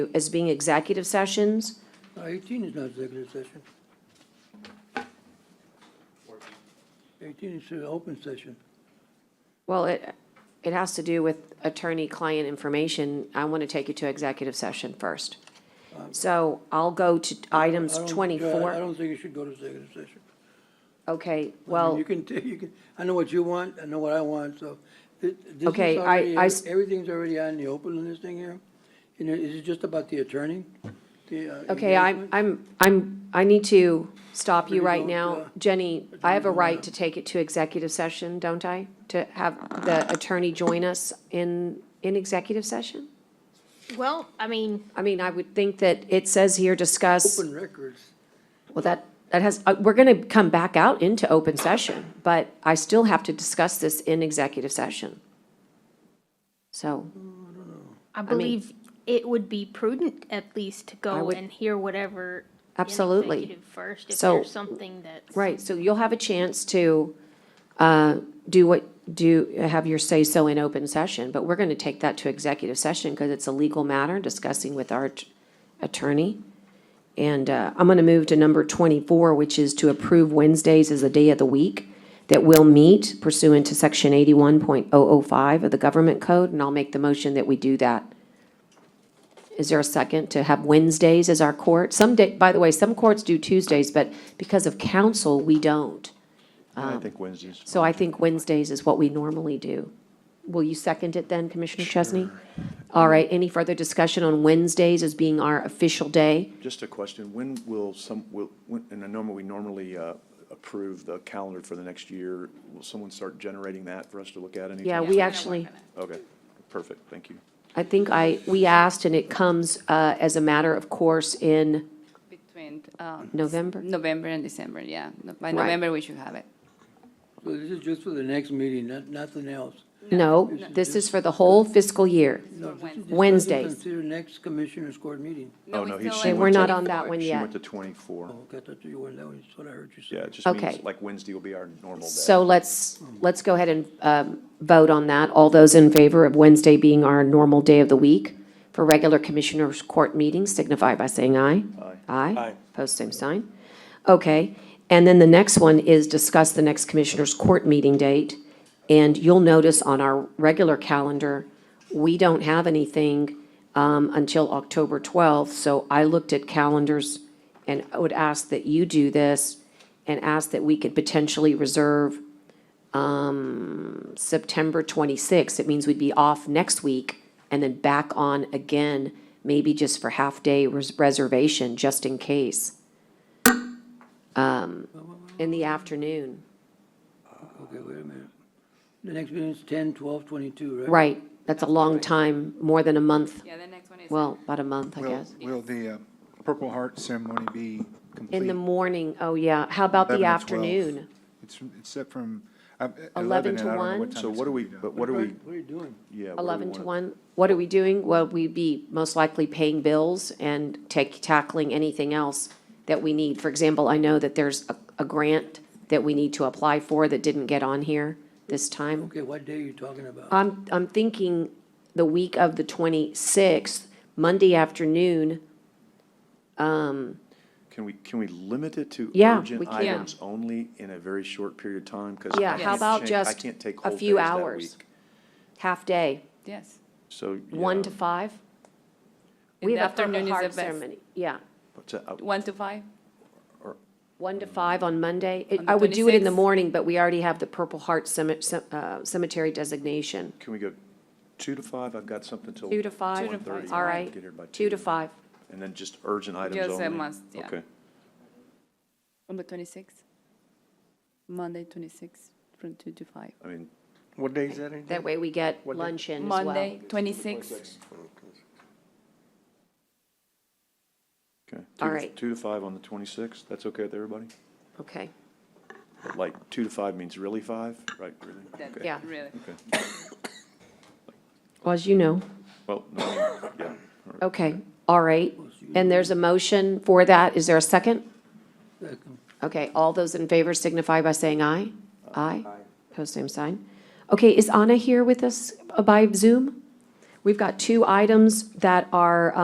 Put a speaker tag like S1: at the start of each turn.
S1: as being executive sessions.
S2: No, 18 is not executive session. 18 is an open session.
S1: Well, it, it has to do with attorney-client information. I want to take you to executive session first. So I'll go to
S2: Um, I
S1: items
S2: don't- uh, I
S1: twenty-four.
S2: don't think you should go to executive session.
S1: Okay,
S2: I mean,
S1: well.
S2: You can, ta- you can, I know what you want, I know what I want, so thi- this is
S1: Okay, I-
S2: already,
S1: I s-
S2: everything's already out in the open in this thing here. You know, is it just about the attorney? The, uh,
S1: Okay, I'm,
S2: engagement?
S1: I'm, I'm, I need to stop you
S2: Pretty
S1: right
S2: vote, uh,
S1: now. Jenny, I have a
S2: attorney
S1: right
S2: join
S1: to take it to executive session, don't I? To have the attorney join us in, in executive session?
S3: Well, I mean,
S1: I mean, I would think that it says here, discuss,
S2: Open records.
S1: well, that, that has, uh, we're gonna come back out into open session, but I still have to discuss this in executive session. So,
S3: I believe it would be prudent at least to
S1: I
S3: go
S1: would-
S3: and hear whatever. in
S1: Absolutely.
S3: executive First, if
S1: So-
S3: there's something that's.
S1: right, so you'll have a chance to, uh, do what, do, have your say-so in open session, but we're gonna take that to executive session, because it's a legal matter, discussing with our att- attorney. And uh, I'm going to move to number 24, which is to approve Wednesdays as a day of the week that will meet pursuant to Section 81.005 of the Government Code, and I'll make the motion that we do that. Is there a second to have Wednesdays as our court? Some day, by the way, some courts do Tuesdays, but because of council, we don't.
S4: I think Wednesdays.
S1: Um, So I think Wednesdays is what we normally do. Will you second it then, Commissioner Chesney? All right, any further discussion on Wednesdays as being our official day?
S4: Just a question, when will some, will, when, and I normally, we normally uh, approve the calendar for the next year. Will someone start generating that for us to look at anytime?
S1: Yeah, we actually.
S4: Okay, perfect, thank you.
S1: I think I, we asked, and it comes uh, as a matter of course in
S5: Between uh,
S1: November.
S5: November and December, yeah. No- By
S1: Right.
S5: November, we should have it.
S2: So this is just for the next meeting, not, nothing else.
S1: No, this is for the whole fiscal year.
S2: No, this is just-
S1: Wednesdays.
S2: this is Consider next commissioners' court meeting.
S4: Oh, no,
S5: it's
S4: he-
S5: not
S4: she
S5: like
S1: And we're not
S5: the
S1: on that
S5: 24th.
S1: one
S4: She
S1: yet.
S4: went to twenty-four.
S2: Oh, okay, I thought you were, that was what I heard you say.
S4: Yeah, it just means
S1: Okay.
S4: like Wednesday will be our normal day.
S1: So let's, let's go ahead and um, vote on that. All those in favor of Wednesday being our normal day of the week for regular commissioners' court meetings signify by saying aye.
S4: Aye.
S1: Aye.
S4: Aye.
S1: Post same sign. Okay. And then the next one is discuss the next commissioners' court meeting date. And you'll notice on our regular calendar, we don't have anything um, until October 12th. So I looked at calendars and I would ask that you do this and ask that we could potentially reserve um, September 26th. It means we'd be off next week and then back on again, maybe just for half-day res- reservation, just in case. Um, In the afternoon,
S2: Okay, wait a minute. The next meeting is 10, 12, 22, right?
S1: right, that's a long time, more than a month,
S5: Yeah, the next one is.
S1: well, about a month, I
S6: Will,
S1: guess.
S6: will the uh, Purple Heart ceremony be complete?
S1: In the morning, oh yeah, how about
S6: 11
S1: the
S6: to 12?
S1: afternoon?
S6: It's, it's set from uh,
S1: 11
S6: 11
S1: to
S6: and I don't know
S1: 1?
S6: what time
S4: So
S6: it's
S4: what do
S6: gonna
S4: we,
S6: be done.
S4: but what do we,
S2: What are you doing?
S4: yeah. what do we
S1: 11 to
S4: wanna-
S1: 1, what are we doing? Well, we'd be most likely paying bills and take, tackling anything else that we need. For example, I know that there's a, a grant that we need to apply for that didn't get on here this time.
S2: Okay, what day are you talking about?
S1: I'm, I'm thinking the week of the 26th, Monday afternoon,
S4: Can we, can we limit it to
S1: Yeah, we
S4: urgent
S1: can.
S4: items only in a very short period of time? 'Cause I
S1: Yeah,
S4: can't
S1: how about
S4: change- I
S1: just
S4: can't take
S1: a
S4: whole
S1: few
S4: days that
S1: hours?
S4: week.
S1: half-day,
S5: Yes.
S1: 1 to
S4: So,
S1: 5.
S5: In
S1: We
S5: the
S1: have a Purple
S5: afternoon is the
S1: Heart
S5: best.
S1: ceremony. Yeah,
S4: yeah. To- uh,
S5: One to five?
S1: 1 to 5 on Monday. It-
S5: On the
S1: I would do it in the
S5: 26th?
S1: morning, but we already have the Purple Heart Cemetery, cemetery designation.
S4: Can we go two to five? I've got something till.
S1: Two to five,
S5: Two to five.
S1: all right,
S4: Get here by
S1: two to five,
S4: And then just urgent items only?
S5: Just a must, yeah.
S4: Okay.
S5: On the twenty-sixth? Monday, twenty-sixth, from two to five.
S4: I mean,
S7: What day is that again?
S1: that way we get lunch in as well.
S5: Monday, twenty-sixth,
S4: okay.
S1: All
S4: Two to-
S1: right.
S4: Two to five on the 26th. That's okay with everybody?
S1: Okay,
S4: But Like, two to five means really five, right? Really? Okay.
S1: yeah,
S5: really.
S4: Okay.
S1: well, as you know,
S4: Well, no, I mean, yeah. all right.
S1: okay, all right, and there's a motion for that, is there a second?
S2: Second.
S1: Okay, all those in favor signify by saying aye. Aye, post same sign. Okay, is Anna here with us by Zoom? We've got two items that are